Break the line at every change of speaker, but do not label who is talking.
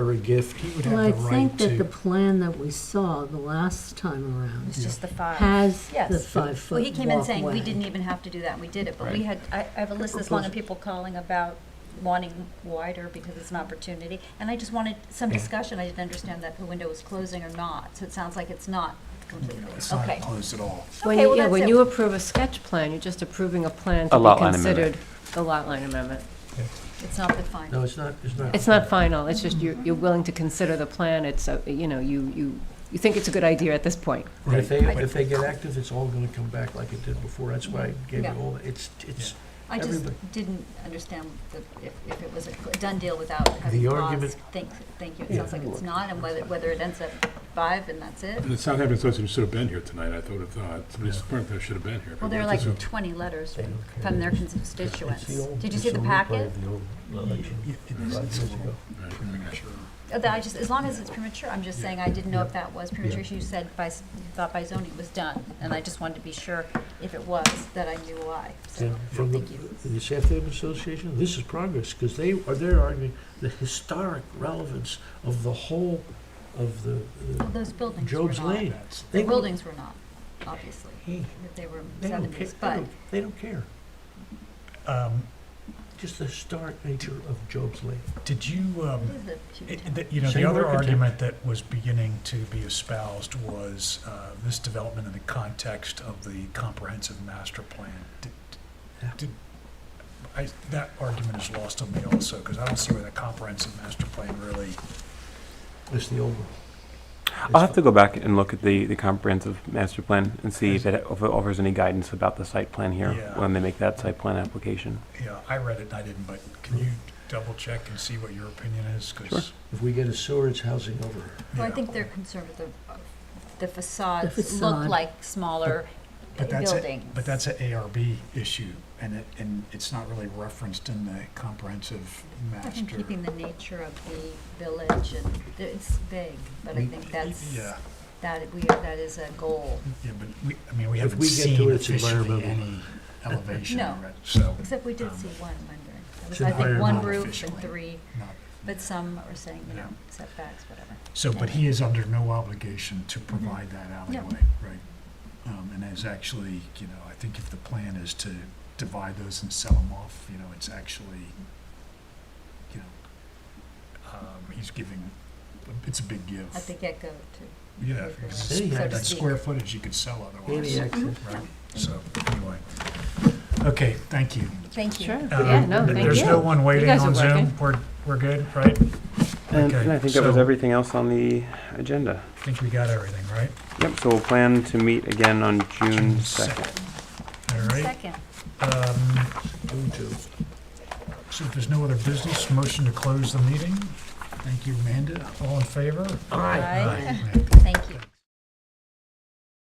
her a gift, he would
Well,
have
I
the right
think that the
to.
plan that we saw the last time around
It's just the five.
has the
Yes.
five-foot
Well, he came in saying, we
walkway.
didn't even have to do that, and we did it, but we
Right.
had, I, I have a list this long of people calling about wanting wider because it's an opportunity, and I just wanted some
Yeah.
discussion, I didn't understand that the window was closing or not, so it sounds like it's not completely,
It's not
okay.
closed at all.
When
Okay,
you,
well,
yeah,
that's
when
it.
you approve a sketch plan, you're just approving a plan
A
to be
lot line amendment.
considered the lot line amendment.
It's not the final.
No, it's not, it's not.
It's not final, it's just you're, you're willing to consider the plan, it's, a- you know, you, you, you think it's a good idea at this point.
But
Right.
if they,
but-
if they get active, it's all gonna come back like it did before, that's why I gave
Mm-hmm. Yeah.
it all, it's, it's,
I just
Everybody.
didn't understand the- if, if it was a cl- done deal without having
The
laws.
argument-
Thank, thank you, it
Yeah.
sounds like it's not, and whether, whether it ends at five and that's it.
The Southampton Association should have been here tonight, I thought, uh, somebody from should have been here.
Well, there are like twenty letters
they don't care.
from their
It's
constituents.
the old-
Did you
it's
see the
old
packet?
plan, the old election,
Yeah, it is.
five years ago.
Right.
Uh, that I just, as long as it's premature, I'm just saying, I didn't know if that was premature, you said by, s- you thought by zoning it was done, and I just wanted to be sure if it was, that I knew why, so,
And From the,
thank you.
the Southampton Association, this is progress, because they are, they're arguing the historic relevance of the whole, of the, uh,
Those buildings were
Job's Lane.
not,
They
the
don't-
buildings were not, obviously,
Hey,
if they were
They don't care,
seventies,
they
but,
don't, they don't care,
Um,
just the historic nature of Job's Lane.
Did you, um,
it is a huge
It- the- You know, the
Same
other
architect.
argument that was beginning to be espoused was uh, this development in the context of the comprehensive master plan. Did-
Yeah.
did- I- That argument is lost on me also, because I don't see where the comprehensive master plan really,
It's the old one.
I'll have to go back and look at the, the comprehensive master plan and see if it, if it offers any guidance about the site plan here
Yeah.
when they make that site plan application.
you know, I read it and I didn't, but can you double check and see what your opinion is? 'Cause,
If we get a sewer, it's housing over.
Well, I
yeah.
think they're concerned with the, the facades look
facade.
like smaller
But that's, a-
buildings.
but that's an ARB issue, and it, and it's not really referenced in the comprehensive
I
master.
think keeping the nature of the village, and it's big, but I
We-
think that's,
Yeah.
that we, that is a goal.
Yeah, but we, I mean, we
If
haven't
we get to
seen
it, it's
officially
environmental.
any elevation,
No.
right? So,
Except we did
Um,
see one rendering. It was,
should
I think,
hire
one
them
roof and
officially.
three,
not,
but some are saying, you know,
Yeah.
setbacks, whatever.
so, but he is under no obligation to
Mm-hmm.
provide that alleyway, right? Um, and is actually, you know, I think if the plan is to divide those and sell them off, you know, it's actually, you know, um, he's giving, it's a big give.
At the get-go, too.
Yeah, because
City
it's-
had
that
that.
square footage you could sell
Any
otherwise,
access.
right? So, anyway. Okay, thank you.
Thank you.
Sure,
Um,
yeah, no,
th-
thank
There's no
you.
one waiting
guys
on
are
Zoom.
working.
We're, we're good, right?
And,
Okay,
and I think that was
so-
everything else on the agenda.
I think we got everything, right?
Yep, so we'll plan to meet again on June
Second.
2nd.
All right.
Second,
um,
June two.
So if there's no other business, motion to close the meeting. Thank you, Amanda. All in favor?
Aye.
Amanda.
thank you.